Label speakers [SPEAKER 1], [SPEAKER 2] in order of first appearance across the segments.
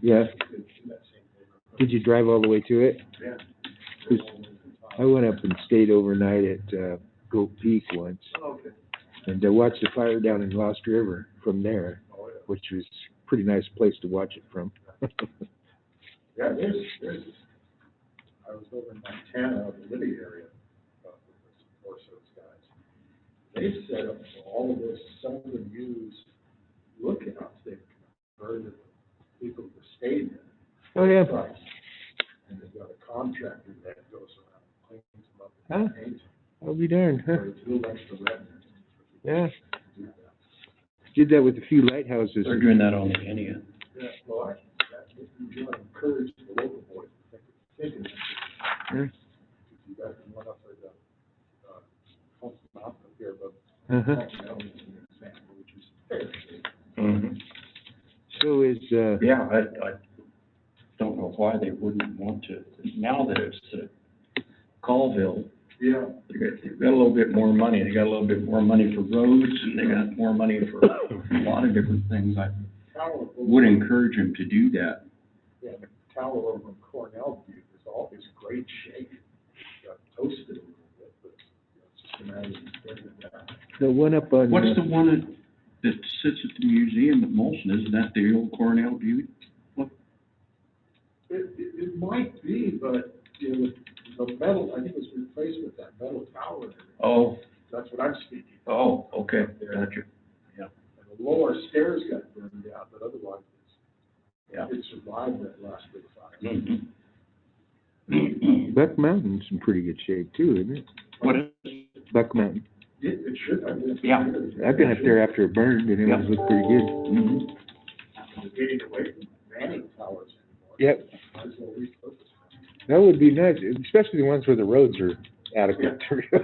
[SPEAKER 1] Yeah. Did you drive all the way to it?
[SPEAKER 2] Oh, Yeah.
[SPEAKER 1] 'Cause I went up and stayed overnight at, uh, Goat Peak once,
[SPEAKER 2] Okay.
[SPEAKER 1] and I watched the fire down in Lost River from there,
[SPEAKER 2] Oh, yeah.
[SPEAKER 1] which was a pretty nice place to watch it from.
[SPEAKER 2] Yeah, there's, there's, I was over in Montana, the Liddy area, uh, with some Forest Service guys. They've set up all of this seldom used lookouts, they've converted people who stayed there.
[SPEAKER 1] Oh, yeah.
[SPEAKER 2] Right. And they've got a contractor that goes around and cleans them up
[SPEAKER 1] Huh?
[SPEAKER 2] and paints them,
[SPEAKER 1] I'll be darned,
[SPEAKER 2] so
[SPEAKER 1] huh?
[SPEAKER 2] it's a little extra revenue.
[SPEAKER 1] Yeah.
[SPEAKER 2] to do that.
[SPEAKER 1] Did that with a few lighthouses.
[SPEAKER 3] They're doing that on the E Indian.
[SPEAKER 2] Yeah, well, I, that, you want to encourage the local boys to think, think of
[SPEAKER 1] Hmm.
[SPEAKER 2] that. If you guys can run up to the, uh, Pulse Mountain up here, but.
[SPEAKER 1] Uh-huh.
[SPEAKER 2] Pulse Mountain is an example, which is very big.
[SPEAKER 3] Mm-hmm.
[SPEAKER 1] So is, uh,
[SPEAKER 3] Yeah, I, I don't know why they wouldn't want to. Now that it's uh, Colville,
[SPEAKER 2] Yeah.
[SPEAKER 3] they got, they've got a little bit more money. They got a little bit more money for roads and they got more money for a lot of different things. I
[SPEAKER 2] Tower
[SPEAKER 3] would
[SPEAKER 2] over,
[SPEAKER 3] encourage them to do that.
[SPEAKER 2] yeah, the tower over in Cornell View is all this great shape. Got toasted a little bit, but you know, it's just a matter of bringing it down.
[SPEAKER 1] the one up on,
[SPEAKER 3] What's the
[SPEAKER 1] uh,
[SPEAKER 3] one that, that sits at the museum at Molson? Isn't that the old Cornell Beauty?
[SPEAKER 2] It, it, it might be, but, you know, the metal, I think it was replaced with that metal tower.
[SPEAKER 3] Oh,
[SPEAKER 2] That's what I'm speaking.
[SPEAKER 3] oh, okay, gotcha.
[SPEAKER 2] And the lower stairs got burned out, but otherwise,
[SPEAKER 3] Yeah. Hmm.
[SPEAKER 2] it's, it survived that last big fire.
[SPEAKER 3] Mhm.
[SPEAKER 1] Buck Mountain's in pretty good shape too, isn't it?
[SPEAKER 3] What is,
[SPEAKER 1] Buck Mountain.
[SPEAKER 2] It, it should have. been-
[SPEAKER 3] Yeah.
[SPEAKER 1] I've been up there after it burned and it was
[SPEAKER 3] Yeah.
[SPEAKER 1] looked pretty good.
[SPEAKER 3] mhm.
[SPEAKER 2] It's Getting away from banning towers anymore.
[SPEAKER 1] Yep.
[SPEAKER 2] Might as well repurpose them.
[SPEAKER 1] That would be nice, especially the ones where the roads are adequate.
[SPEAKER 2] I, I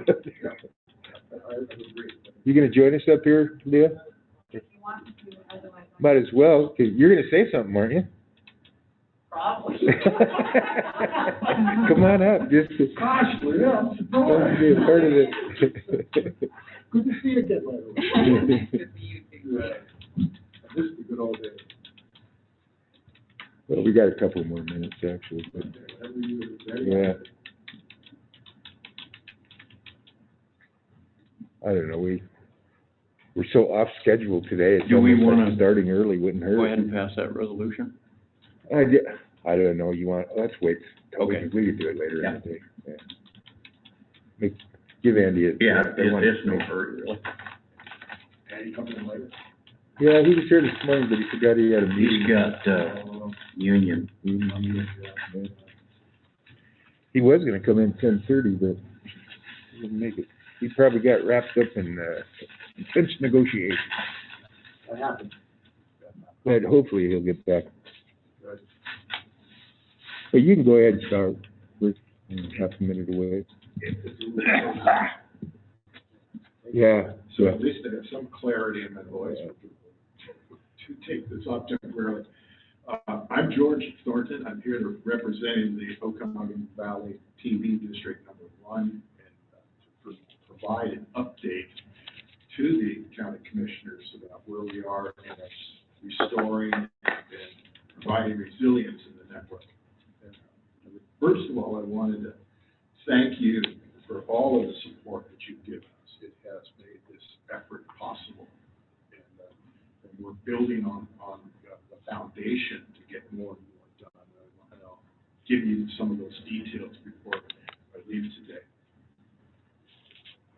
[SPEAKER 2] would agree.
[SPEAKER 1] You gonna join us up here, Leah? Might as well, 'cause you're gonna say something, aren't you?
[SPEAKER 4] Probably.
[SPEAKER 1] Come on up, just.
[SPEAKER 2] Gosh, Leah, I'm
[SPEAKER 1] Don't
[SPEAKER 2] surprised.
[SPEAKER 1] be a part of it.
[SPEAKER 2] Good to see you again, by the way.
[SPEAKER 4] Good for you, too.
[SPEAKER 2] Yeah. This is a good old day.
[SPEAKER 1] Well, we got a couple more minutes actually, but,
[SPEAKER 2] Every year, every year.
[SPEAKER 1] yeah. I don't know, we, we're so off schedule today. It's
[SPEAKER 3] Do we
[SPEAKER 1] almost like
[SPEAKER 3] wanna-
[SPEAKER 1] Starting early wouldn't hurt.
[SPEAKER 3] Go ahead and pass that resolution.
[SPEAKER 1] I, di- I don't know, you want, let's wait, till we
[SPEAKER 3] Okay.
[SPEAKER 1] can- we can do it later in
[SPEAKER 3] Yeah.
[SPEAKER 1] the day, yeah. Make, give Andy a. I want-
[SPEAKER 3] further.
[SPEAKER 2] And you come in later.
[SPEAKER 1] Yeah, he was here this morning, but he forgot he had a
[SPEAKER 3] He's
[SPEAKER 1] meeting.
[SPEAKER 3] got, uh, union.
[SPEAKER 1] He was gonna come in ten thirty, but he didn't make it. He probably got wrapped up in, uh, intense negotiations,
[SPEAKER 2] That happens.
[SPEAKER 1] but hopefully he'll get back.
[SPEAKER 2] Good.
[SPEAKER 1] But you can go ahead and start, we're mm, half a minute away. Yeah,
[SPEAKER 2] So
[SPEAKER 1] so,
[SPEAKER 2] at least they have some clarity in their voice for people to take this up temporarily. Uh, I'm George Thornton, I'm here to represent the Okanagan Valley TV District Number One and uh, to pro- provide an update to the county commissioners about where we are in restoring and providing resilience in the network. uh, First of all, I wanted to thank you for all of the support that you've given us. It has made this effort possible. And, uh, and we're building on, on uh, the foundation to get more and more done. And I'll give you some of those details before I leave today.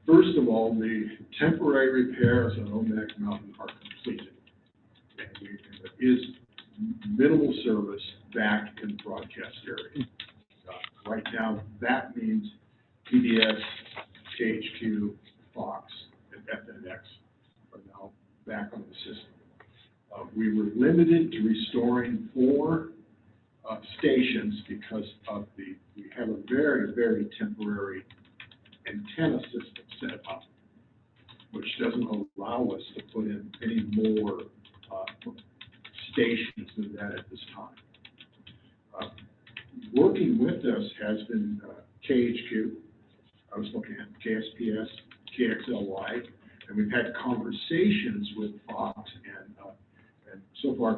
[SPEAKER 2] First of all, the temporary repairs on Omak Mountain are completed. And we- and there is minimal service back in the broadcast area. Uh, Right now, that means PBS, KHQ, Fox, and FNX are now back on the system. Uh, we were limited to restoring four, uh, stations because of the, we have a very, very temporary antenna system set up, which doesn't allow us to put in any more, uh, stations than that at this time. Uh, working with us has been uh, KHQ, I was looking at KSPS, KXLY, and we've had conversations with Fox and, uh, and so far